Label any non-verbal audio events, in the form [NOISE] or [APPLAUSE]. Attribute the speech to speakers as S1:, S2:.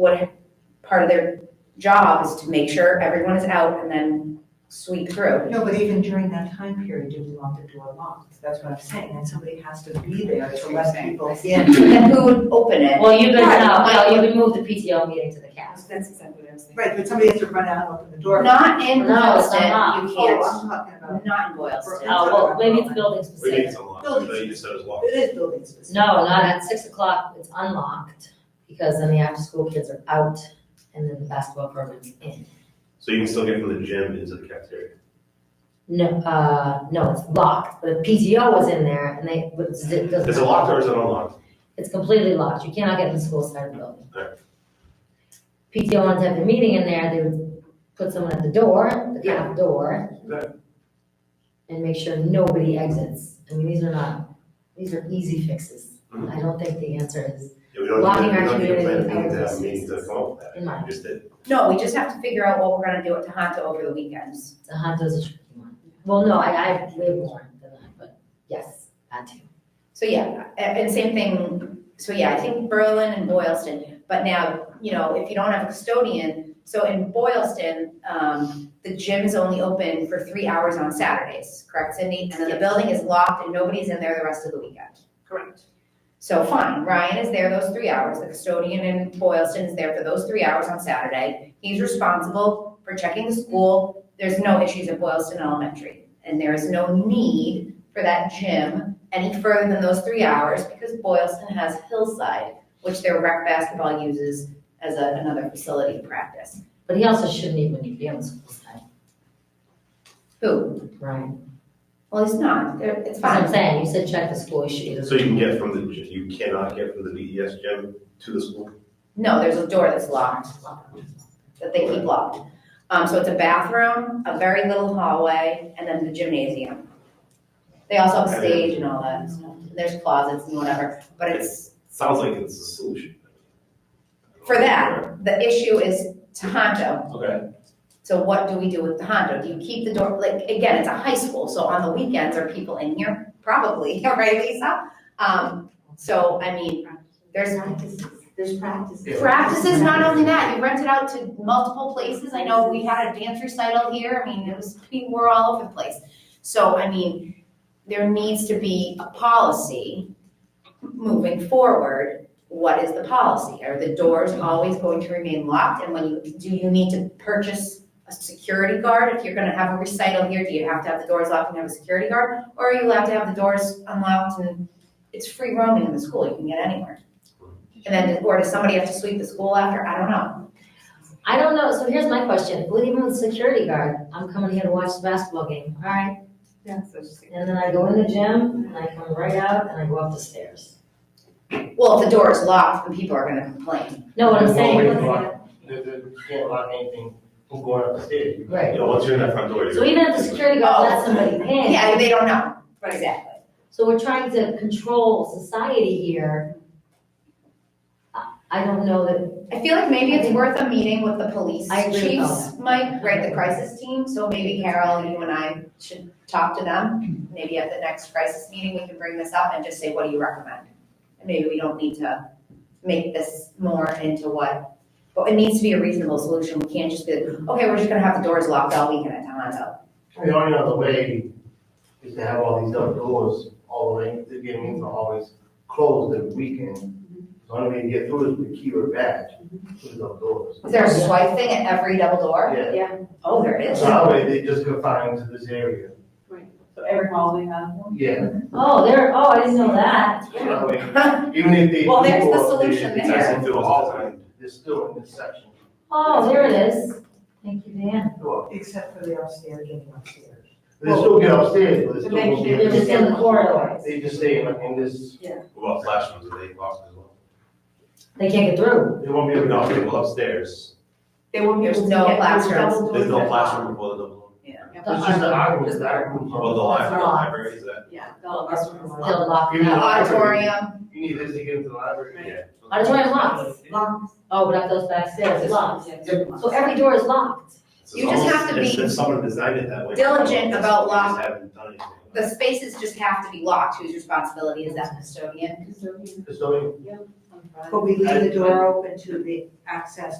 S1: what part of their job is to make sure everyone is out and then sweep through.
S2: No, but even during that time period, do we want the door locked? That's what I'm saying, and somebody has to be there to let people in.
S1: Then who would open it?
S3: Well, you could,
S1: Right,
S3: no,
S1: like-
S3: no, you could move the PTO meeting to the cast.
S4: That's exactly what I was
S2: [LAUGHS]
S4: thinking.
S2: Right, but somebody has to run out and open the door.
S1: Not in
S3: No, it's
S1: Boylston,
S3: not.
S1: you
S2: Oh,
S1: can't.
S2: I'm talking about,
S1: Not in Boylston.
S3: Oh, well, maybe it's building
S5: We
S3: specific.
S5: need some lock, but you said it's locked.
S2: it is building specific.
S3: No, not at six o'clock, it's unlocked, because then the after-school kids are out, and then the basketball program's in.
S5: So you can still get from the gym into the cafeteria.
S3: No, uh, no, it's locked, but PTO was in there, and they, but it doesn't.
S5: Is it locked or is it unlocked?
S3: It's completely locked, you cannot get to the school side of the building.
S5: Alright.
S3: PTO wanted to have their meeting in there, they would put someone at the door, the
S2: Yeah.
S3: back door.
S5: Right.
S3: And make sure nobody exits, I mean, these are not, these are easy fixes,
S5: Mhm.
S3: I don't think the answer is,
S5: Yeah, we don't,
S3: Locking
S5: we
S3: our
S5: don't need to plan a
S3: community
S5: meeting to have
S3: hours.
S5: a meeting to come up with that.
S3: in my,
S5: We just did.
S1: No, we just have to figure out what we're gonna do at Tohoto over the weekends.
S3: the Honda's a tricky one. Well, no, I, I have way more than that, but yes, that too.
S1: So yeah, a- and same thing, so yeah, I think Berlin and Boylston, but now, you know, if you don't have a custodian, so in Boylston, um, the gym's only open for three hours on Saturdays, correct Cindy? And then the building is locked and nobody's in there the rest of the weekend.
S4: Correct.
S1: So fine, Ryan is there those three hours, the custodian in Boylston is there for those three hours on Saturday. He's responsible for checking the school, there's no issues at Boylston Elementary. And there is no need for that gym any further than those three hours because Boylston has Hillside, which their rec basketball uses as a- another facility to practice.
S3: But he also shouldn't even be on the school side,
S1: Who?
S3: right?
S1: Well, he's not, They're- it's
S3: That's what I'm
S1: fine.
S3: saying, you said check the school, you should either.
S5: So you can get from the, gy- you cannot get from the DES gym to the school?
S1: No, there's a door that's locked. that they keep locked. Um, so it's a bathroom, a very little hallway, and then the gymnasium. They also have a stage and all that stuff. There's closets and whatever, but it's,
S5: Sounds like it's a solution.
S1: for that, the issue is Tohoto.
S5: Okay.
S1: So what do we do with Tohoto? Do you keep the door, like, again, it's a high school, so on the weekends, are people in here? Probably, [LAUGHS] right, Lisa? Um, so, I mean, there's
S2: Practices, there's practices.
S1: Practices, not only that, you rent it out to multiple places, I know we had a dance recital here, I mean, it was, we were all over the place. So, I mean, there needs to be a policy moving forward, what is the policy? Are the doors always going to remain locked, and when you, do you need to purchase a security guard? If you're gonna have a recital here, do you have to have the doors locked and have a security guard? Or are you allowed to have the doors unlocked and it's free roaming in the school, you can get anywhere? And then, or does somebody have to sweep the school after? I don't know.
S3: I don't know, so here's my question, well, even with security guard, I'm coming here to watch the basketball game, alright?
S4: Yeah, so just.
S3: And then I go in the gym, and I come right out, and I go up the stairs.
S1: Well, if the door is locked, then people are gonna complain.
S3: No, what I'm
S6: Well,
S3: saying,
S6: we can't- there- there- you can't lock anything from going up the stairs. You
S3: right,
S5: You know, once you're in that front door, you're.
S3: so even if the security guard lets somebody in.
S1: Yeah, they don't know. Exactly.
S3: So we're trying to control society here. I- I don't know that,
S1: I feel like maybe it's worth a meeting with the police
S3: I agree with
S1: chiefs, Mike, right, the crisis team. So maybe Carol, you and I should talk to them. Maybe at the next crisis meeting, we can bring this up and just say, what do you recommend? And maybe we don't need to make this more into what, but it needs to be a reasonable solution. We can't just be, like, okay, we're just gonna have the doors locked all weekend at Tohoto.
S6: know, The only other way is to have all these double doors all the way, the games are always closed at weekend. The only way to get through is with key or badge, through the doors.
S1: Is there a swipe thing at every double door?
S6: Yeah,
S1: Oh, there is.
S6: so
S1: [LAUGHS]
S6: that way they just confined to this area.
S4: So every hall we have one?
S6: Yeah,
S3: oh, there, oh, I didn't know that.
S6: so that way, even if they.
S1: Well, there's the
S6: do go up, they-
S1: solution
S6: they-
S1: there.
S6: They're all- they're still in this section.
S3: Oh, there it is. Thank you, Dan.
S6: Well,
S2: Except for the upstairs, getting upstairs.
S6: They still get upstairs, but they
S4: But
S6: still
S4: they
S6: won't
S4: can't-
S6: get.
S3: They're just in the corridor.
S6: They just stay in, in this,
S5: What about flash ones? Are they locked as well?
S3: They can't get through.
S6: they won't be able to.
S5: No, people upstairs.
S4: They won't be
S1: There's
S4: able to
S1: no
S4: get those
S1: classrooms.
S4: double
S5: There's no
S4: doors
S5: flash
S4: that
S5: room before the double.
S4: lock.
S6: It's just the argument, the argument.
S5: Well, Oh, the library, the
S3: Locked.
S5: library is that.
S4: Yeah.
S3: They'll
S4: classrooms.
S3: lock
S6: Even
S1: The
S6: the
S3: out.
S1: auditorium,
S6: You need this to get into the library.
S5: Yeah.
S3: Auditorium locks.
S4: Locks.
S3: Oh, but up those back stairs, it's locked.
S4: Yeah,
S6: Yep.
S4: locks.
S3: So every door is locked.
S5: It's
S1: You just have to
S5: almost-
S1: be
S5: If someone designed it that way.
S1: diligent about
S5: They just
S1: lock-
S5: haven't done anything about it.
S1: the spaces just have to be locked, whose responsibility is that custodian?
S4: Custodian.
S6: Custodian.
S4: Yep. in front.
S2: But we leave the door open to the access